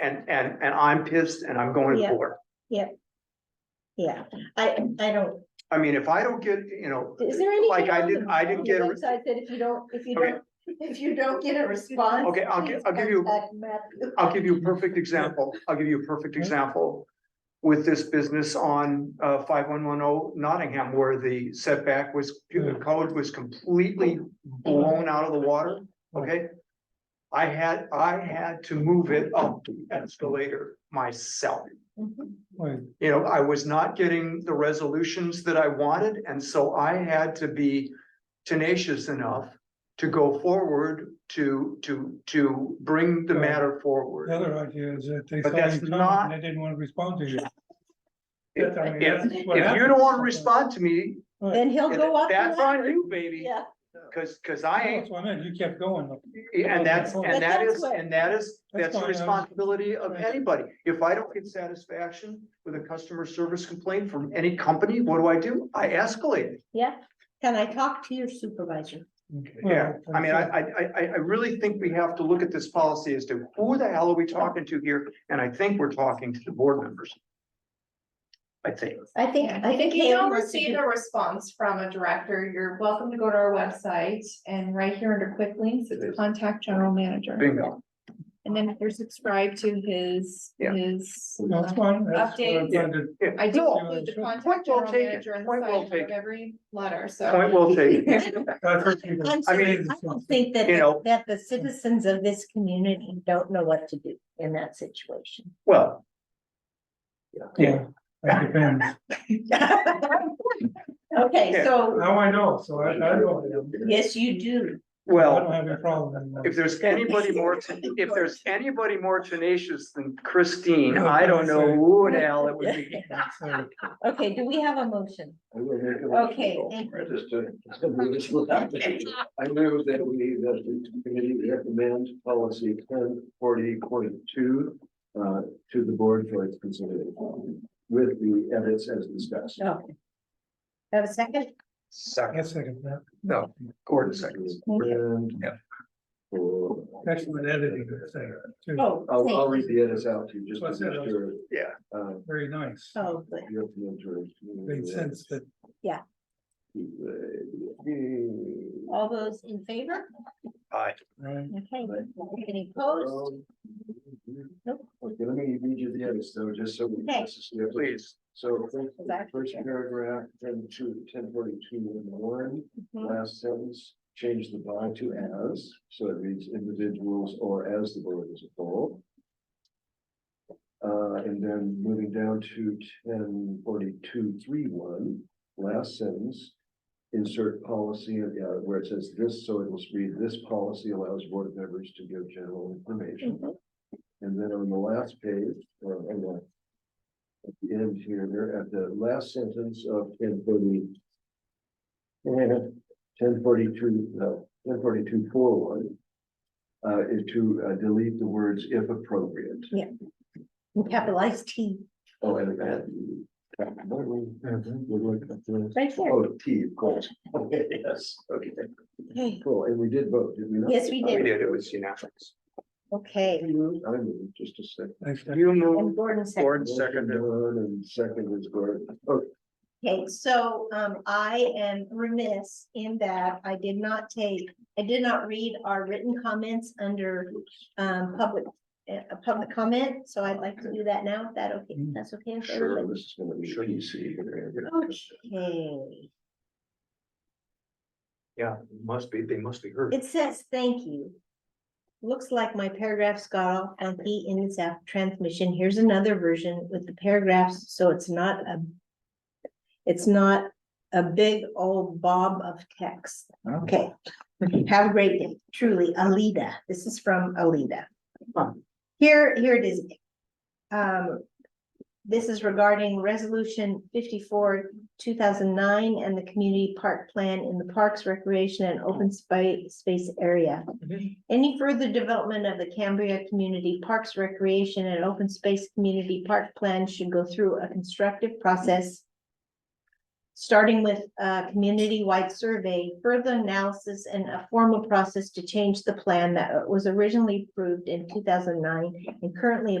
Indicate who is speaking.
Speaker 1: and, and, and I'm pissed and I'm going to
Speaker 2: Yeah.
Speaker 1: court.
Speaker 2: yeah, I, I don't,
Speaker 1: I mean, if I don't get, you know,
Speaker 2: is there anything?
Speaker 1: like I
Speaker 2: on the-
Speaker 1: didn't, I didn't
Speaker 2: on
Speaker 1: get,
Speaker 2: the
Speaker 1: a-
Speaker 2: Website that if you don't, if you
Speaker 1: Okay.
Speaker 2: don't, if you don't get a response.
Speaker 1: Okay, I'll gi-
Speaker 2: please
Speaker 1: I'll give you-
Speaker 2: contact Matthew.
Speaker 1: I'll give you a perfect example. I'll give you a perfect example. With this business on uh five one one oh Nottingham where the setback was, the code was completely blown out of the water, okay? I had, I had to move it up the escalator myself.
Speaker 2: Mhm.
Speaker 3: Right,
Speaker 1: You know, I was not getting the resolutions that I wanted, and so I had to be tenacious enough to go forward to, to, to bring the matter forward.
Speaker 3: the other idea is that they
Speaker 1: But
Speaker 3: saw
Speaker 1: that's
Speaker 3: you
Speaker 1: not-
Speaker 3: coming, they didn't wanna respond to you.
Speaker 1: If,
Speaker 3: That's- I mean,
Speaker 1: if-
Speaker 3: that's what
Speaker 1: if you don't
Speaker 3: happens
Speaker 1: wanna
Speaker 3: sometimes.
Speaker 1: respond to me,
Speaker 3: Right.
Speaker 2: Then he'll go up. the
Speaker 1: that's on
Speaker 2: ladder.
Speaker 1: you, baby,
Speaker 2: Yeah,
Speaker 1: cause, cause I
Speaker 3: No,
Speaker 1: ain't,
Speaker 3: That's what I meant, you kept going,
Speaker 1: and that's,
Speaker 2: But
Speaker 1: and that
Speaker 2: that's
Speaker 1: is,
Speaker 2: what-
Speaker 1: and that is,
Speaker 3: That's
Speaker 1: that's the
Speaker 3: fine, I was-
Speaker 1: responsibility of
Speaker 3: Right.
Speaker 1: anybody. If I don't get satisfaction with a customer service complaint from any company, what do I do? I escalate it.
Speaker 2: yeah. Can I talk to your supervisor?
Speaker 1: Yeah,
Speaker 3: Well,
Speaker 1: I mean, I,
Speaker 3: that's
Speaker 1: I, I, I- I really think we have to look at this policy as to who the hell are we talking to here? And I think we're talking to the board members. I think.
Speaker 2: I think, I think.
Speaker 4: If you
Speaker 2: Haley
Speaker 4: don't
Speaker 2: wants to
Speaker 4: receive
Speaker 2: do-
Speaker 4: a response from a director, you're welcome to go to our website and right here under quick links, it's contact general manager.
Speaker 1: Bingo.
Speaker 4: And then if you're subscribed to his,
Speaker 1: Yeah.
Speaker 4: his.
Speaker 3: no, that's fine, that's what I
Speaker 4: Updates.
Speaker 3: wanted to-
Speaker 1: Yeah,
Speaker 4: I do
Speaker 1: no,
Speaker 4: include the
Speaker 3: Point
Speaker 4: contact
Speaker 1: well
Speaker 4: general
Speaker 1: taken.
Speaker 4: manager in
Speaker 1: Point
Speaker 4: the
Speaker 1: well
Speaker 4: side of
Speaker 1: taken.
Speaker 4: every letter, so.
Speaker 1: Point well taken.
Speaker 3: I've heard people
Speaker 2: I'm
Speaker 1: I
Speaker 2: sorry,
Speaker 1: mean,
Speaker 2: I don't think that,
Speaker 1: you know-
Speaker 2: that the citizens of this community don't know what to do in that situation.
Speaker 1: Well.
Speaker 3: Yeah, that depends.
Speaker 2: Okay,
Speaker 1: Yeah.
Speaker 2: so,
Speaker 3: Now I know, so I, I don't,
Speaker 2: yes, you do.
Speaker 3: I
Speaker 1: Well.
Speaker 3: don't have a problem anymore.
Speaker 1: If there's anybody more, ten- if there's anybody more tenacious than Christine, I don't know who the hell it would be.
Speaker 3: So,
Speaker 2: Okay, do we have a motion?
Speaker 5: I will make a
Speaker 2: Okay,
Speaker 5: motion.
Speaker 2: thank
Speaker 5: I just, uh, just a move it without- I move that we, that the committee recommend policy ten forty point two uh, to the board for its consideration with the edits as discussed.
Speaker 2: Okay. Have a second?
Speaker 3: I
Speaker 1: Second,
Speaker 3: guess I can, uh,
Speaker 1: no, Gordon seconds.
Speaker 5: And-
Speaker 1: Yeah.
Speaker 3: that's what editing is there, too,
Speaker 2: Oh,
Speaker 5: I'll, I'll
Speaker 2: thank
Speaker 5: read
Speaker 2: you.
Speaker 5: the edits out to you just
Speaker 3: What's
Speaker 5: to
Speaker 3: that?
Speaker 5: make sure.
Speaker 1: Yeah.
Speaker 5: uh,
Speaker 3: very nice,
Speaker 2: Oh, good.
Speaker 5: You have to enter. it.
Speaker 3: made sense that,
Speaker 2: All those in favor?
Speaker 3: right,
Speaker 2: Okay. Any opposed?
Speaker 5: Um,
Speaker 2: Nope.
Speaker 5: Okay, let me read you the edits though, just so. we
Speaker 2: Okay.
Speaker 1: Please,
Speaker 5: So first-
Speaker 2: Exactly.
Speaker 5: first paragraph, then two, ten forty-two and one,
Speaker 2: Mhm.
Speaker 5: last sentence, change the by to as, so it reads individuals or as the board as a whole. Uh, and then moving down to ten forty-two, three, one, last sentence. Insert policy, uh, where it says this, so it will read, this policy allows board members to give general information.
Speaker 2: Mhm.
Speaker 5: And then on the last page, or on the. At the end here, there at the last sentence of ten forty. eh, ten forty-two, no, ten forty-two, four one. Uh, is to uh, delete the words if appropriate.
Speaker 2: Capitalized T,
Speaker 5: Oh, and and. Oh,
Speaker 2: right there.
Speaker 5: T, of course. Okay, yes, okay,
Speaker 2: Okay.
Speaker 5: cool. And we did vote, did we not?
Speaker 2: Yes, we
Speaker 1: we
Speaker 2: did.
Speaker 1: did, it was unanimous.
Speaker 5: I
Speaker 2: Okay,
Speaker 5: moved, I moved, just a second.
Speaker 3: thanks, Doc.
Speaker 1: You
Speaker 2: and
Speaker 1: move,
Speaker 2: Gordon second.
Speaker 1: Gordon seconded.
Speaker 5: One and second is Gordon. Okay,
Speaker 2: Okay, so um I am remiss in that I did not take, I did not read our written comments under um public. Uh, a public comment, so I'd like to do that now, if that okay,
Speaker 3: Mm.
Speaker 2: that's okay. with
Speaker 5: Sure,
Speaker 2: everybody?
Speaker 5: this is gonna be
Speaker 1: Sure.
Speaker 5: PC.
Speaker 2: Okay,
Speaker 1: yeah, must be, they must be heard.
Speaker 2: it says, thank you. Looks like my paragraphs got all funky in this app transmission, here's another version with the paragraphs, so it's not a. It's not a big old bob of text. Okay, have a great day. Truly, Alida. This is from Alida.
Speaker 1: Huh.
Speaker 2: Here, here it is. Um, this is regarding resolution fifty-four, two thousand nine, and the community park plan in the parks, recreation, and open space, space area. Any further development of the Cambria Community Parks Recreation and Open Space Community Park Plan should go through a constructive process. Starting with a community-wide survey, further analysis and a formal process to change the plan that was originally approved in two thousand nine and currently